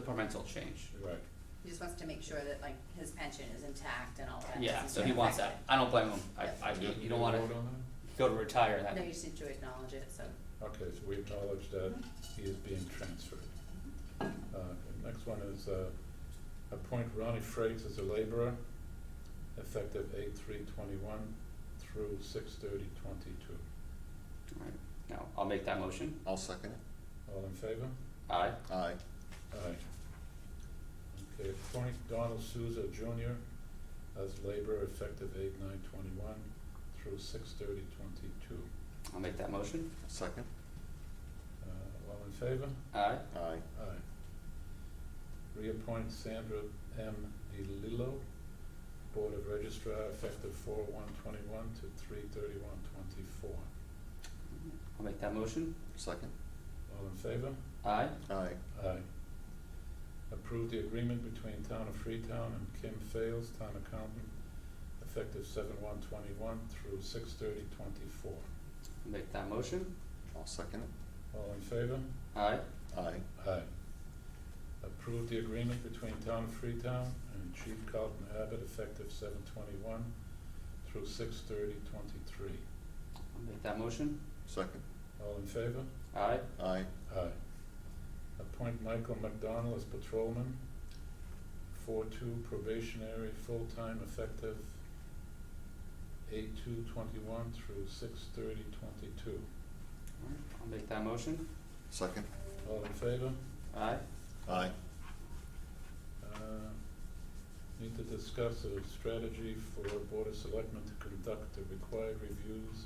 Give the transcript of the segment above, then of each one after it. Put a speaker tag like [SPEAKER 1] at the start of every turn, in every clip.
[SPEAKER 1] departmental change.
[SPEAKER 2] Right.
[SPEAKER 3] He just wants to make sure that like his pension is intact and all that.
[SPEAKER 1] Yeah,
[SPEAKER 3] doesn't
[SPEAKER 1] so
[SPEAKER 3] get
[SPEAKER 1] he wants that.
[SPEAKER 3] affected.
[SPEAKER 1] I don't blame him. I,
[SPEAKER 3] Yeah.
[SPEAKER 1] I,
[SPEAKER 2] Did
[SPEAKER 1] you
[SPEAKER 2] we
[SPEAKER 1] don't wanna
[SPEAKER 2] vote on that?
[SPEAKER 1] go to retire and that.
[SPEAKER 3] No, you just need to acknowledge it, so.
[SPEAKER 2] Okay, so we acknowledge that he is being transferred. Uh, okay, Next one is uh, appoint Ronnie Frakes as a laborer, effective eight three twenty-one through six thirty twenty-two.
[SPEAKER 1] Alright, now, I'll make that motion.
[SPEAKER 4] I'll second it.
[SPEAKER 2] All in favor?
[SPEAKER 1] Aye.
[SPEAKER 4] Aye.
[SPEAKER 2] Aye. Okay, appoint Donald Souza Junior as laborer, effective eight nine twenty-one through six thirty twenty-two.
[SPEAKER 1] I'll make that motion.
[SPEAKER 4] Second?
[SPEAKER 2] Uh, All in favor?
[SPEAKER 1] Aye.
[SPEAKER 4] Aye.
[SPEAKER 2] Aye. Reappoint Sandra M. DeLillo, Board of Registrar, effective four one twenty-one to three thirty-one twenty-four.
[SPEAKER 1] I'll make that motion.
[SPEAKER 4] Second?
[SPEAKER 2] All in favor?
[SPEAKER 1] Aye.
[SPEAKER 4] Aye.
[SPEAKER 2] Aye. Approve the agreement between Town of Freetown and Kim Fales, Town Accountant, effective seven one twenty-one through six thirty twenty-four.
[SPEAKER 1] I'll make that motion.
[SPEAKER 4] I'll second it.
[SPEAKER 2] All in favor?
[SPEAKER 1] Aye.
[SPEAKER 4] Aye.
[SPEAKER 2] Aye. Approve the agreement between Town of Freetown and Chief Carlton Abbott effective seven twenty-one through six thirty twenty-three.
[SPEAKER 1] I'll make that motion.
[SPEAKER 4] Second?
[SPEAKER 2] All in favor?
[SPEAKER 1] Aye.
[SPEAKER 4] Aye.
[SPEAKER 2] Aye. Appoint Michael McDonald as patrolman, four-two probationary, full-time effective eight-two twenty-one through six thirty twenty-two.
[SPEAKER 1] Alright, I'll make that motion.
[SPEAKER 4] Second?
[SPEAKER 2] All in favor?
[SPEAKER 1] Aye.
[SPEAKER 4] Aye.
[SPEAKER 2] Uh, Need to discuss a strategy for Board of Selectmen to conduct the required reviews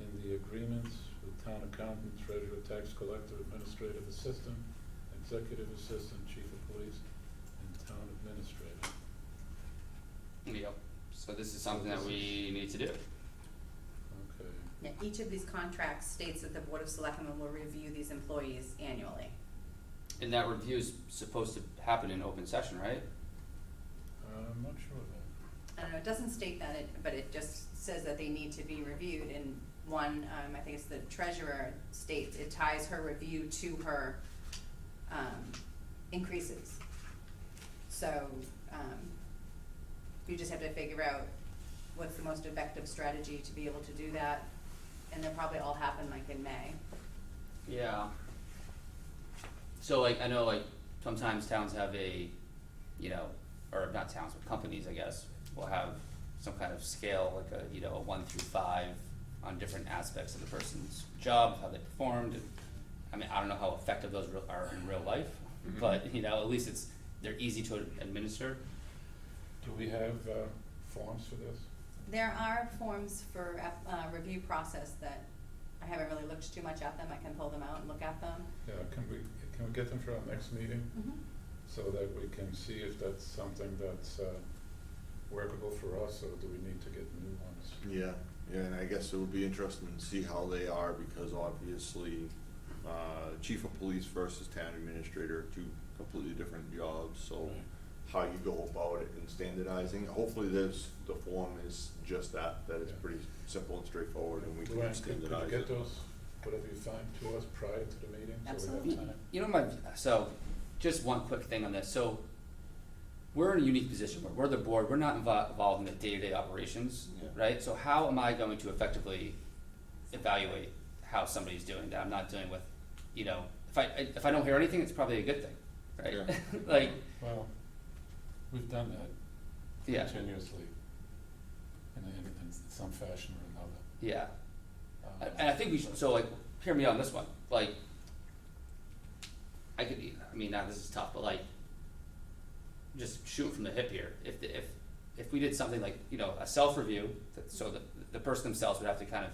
[SPEAKER 2] in the agreements with Town Accountant, Treasurer, Tax Collector, Administrative Assistant, Executive Assistant, Chief of Police, and Town Administrator.
[SPEAKER 1] Yep, so this is something that
[SPEAKER 2] This
[SPEAKER 1] we need to do.
[SPEAKER 2] Okay,
[SPEAKER 3] Yeah, each of these contracts states that the Board of Selectmen will review these employees annually.
[SPEAKER 1] And that review is supposed to happen in open session, right?
[SPEAKER 2] uh, I'm not sure of that.
[SPEAKER 3] I don't know, it doesn't state that, it- but it just says that they need to be reviewed, and one, um, I think it's the treasurer states, it ties her review to her, um, increases. So, um, you just have to figure out what's the most effective strategy to be able to do that, and they'll probably all happen like in May.
[SPEAKER 1] Yeah. So like, I know like sometimes towns have a, you know, or not towns, but companies, I guess, will have some kind of scale, like a, you know, a one through five on different aspects of the person's job, how they performed. and- I mean, I don't know how effective those real- are in real life, but you know, at least it's, they're easy to administer.
[SPEAKER 2] Do we have uh, forms for this?
[SPEAKER 3] There are forms for, app- uh, review process that, I haven't really looked too much at them, I can pull them out and look at them.
[SPEAKER 2] Yeah, can we, can we get them for our next meeting
[SPEAKER 3] Mm-hmm.
[SPEAKER 2] so that we can see if that's something that's uh, workable for us, or do we need to get new ones?
[SPEAKER 4] Yeah, yeah, and I guess it would be interesting to see how they are because obviously, uh, chief of police versus town administrator, two completely different jobs, so
[SPEAKER 2] Right.
[SPEAKER 4] how you go about it and standardizing, hopefully there's, the form is just that, that it's
[SPEAKER 2] Yeah.
[SPEAKER 4] pretty simple and straightforward and we
[SPEAKER 2] Luann,
[SPEAKER 4] can
[SPEAKER 2] could-
[SPEAKER 4] standardize it.
[SPEAKER 2] could you get those, whatever you find, to us prior to the meeting?
[SPEAKER 3] Absolutely.
[SPEAKER 2] So we have time?
[SPEAKER 1] You know, my, so, just one quick thing on this, so, we're in a unique position, we're, we're the board, we're not invo- involved in the day-to-day operations,
[SPEAKER 4] Yeah.
[SPEAKER 1] right? So how am I going to effectively evaluate how somebody's doing that I'm not dealing with, you know, if I, I- if I don't hear anything, it's probably a good thing, right?
[SPEAKER 4] Yeah.
[SPEAKER 1] Like,
[SPEAKER 2] Well, we've done that
[SPEAKER 1] yeah,
[SPEAKER 2] continuously in, in, in some fashion or
[SPEAKER 1] yeah. I-
[SPEAKER 2] another. Uh,
[SPEAKER 1] And I think we should, so like, hear me on this one, like, I could, I mean, now this is tough, but like, just shooting from the hip here, if, the- if, if we did something like, you know, a self-review, that, so the, the person themselves would have to kind of,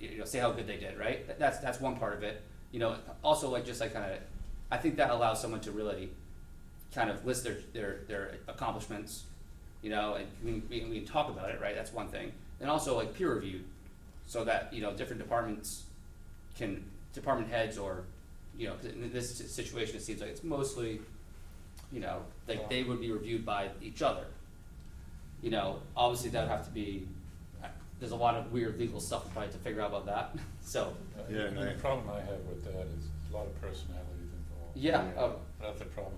[SPEAKER 1] you know, say how good they did, right? That- That's, that's one part of it, you know, also like, just like kind of, I think that allows someone to really kind of list their, their, their accomplishments, you know, and we, we, we can talk about it, right, that's one thing. And also like peer review, so that, you know, different departments can, department heads or, you know, 'cause in this si- situation, it seems like it's mostly, you know, like they would be reviewed by each other. You know, obviously that would have to be, I- there's a lot of weird legal stuff probably to figure out about that, so,
[SPEAKER 2] uh,
[SPEAKER 4] Yeah, and
[SPEAKER 2] The
[SPEAKER 4] I-
[SPEAKER 2] problem I have with that is a lot of personalities involved.
[SPEAKER 1] yeah,
[SPEAKER 4] Yeah.
[SPEAKER 1] oh,
[SPEAKER 2] That's the problem.